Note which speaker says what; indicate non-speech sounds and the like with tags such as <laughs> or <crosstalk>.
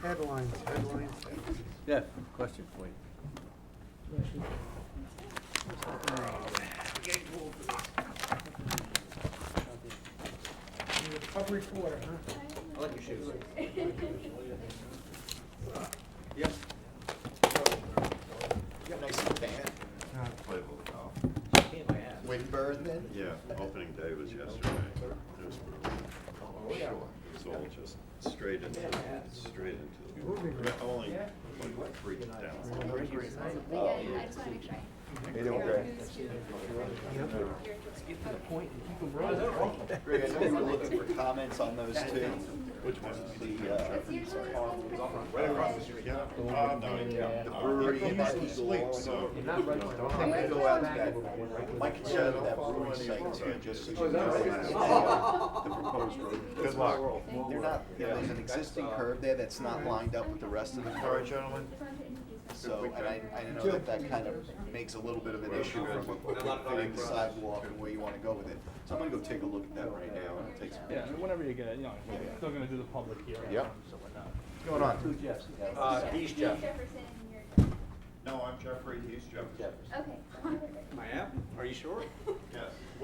Speaker 1: Headlines, headlines, headlines.
Speaker 2: Yeah, question for you.
Speaker 1: You're a pub reporter, huh?
Speaker 2: I like your shoes. Yep.
Speaker 3: You got a nice fan.
Speaker 4: Played a little golf.
Speaker 3: Windburn then?
Speaker 4: Yeah, opening day was yesterday. It was brutal.
Speaker 3: Oh, yeah.
Speaker 4: It was all just straight into, straight into. the- Only like three down.
Speaker 5: Yeah, I just want to make sure.
Speaker 3: They don't care. Greg, I know we were looking for comments on those two.
Speaker 4: Which one?
Speaker 3: The, uh,
Speaker 4: Right across the street. Yeah. Uh, no, yeah.
Speaker 3: the brewery and
Speaker 4: Usually
Speaker 3: the
Speaker 4: sleep, so.
Speaker 3: I'm gonna go out to that, my concern with that brewery site too, just so you know. <laughs>
Speaker 4: The proposed road. Good
Speaker 3: it's- They're not, you know, there's an existing curb there that's not lined up with the rest of the
Speaker 4: All right,
Speaker 3: curb.
Speaker 4: gentlemen.
Speaker 3: So, and I, I know that that kind of makes a little bit of an issue from figuring the sidewalk and where you wanna go with it. So I'm gonna go take a look at that right now and take some
Speaker 6: Yeah, I mean,
Speaker 3: pictures.
Speaker 6: whenever you get it, you know, we're still gonna do the public hearing.
Speaker 3: Yep.
Speaker 6: So whatnot.
Speaker 3: What's going on?
Speaker 2: Uh, he's Jeff.
Speaker 5: Jefferson, and you're Jeff.
Speaker 4: No, I'm Jeffrey. He's Jeffrey.
Speaker 5: Okay.
Speaker 2: I am, are you sure?
Speaker 4: Yes.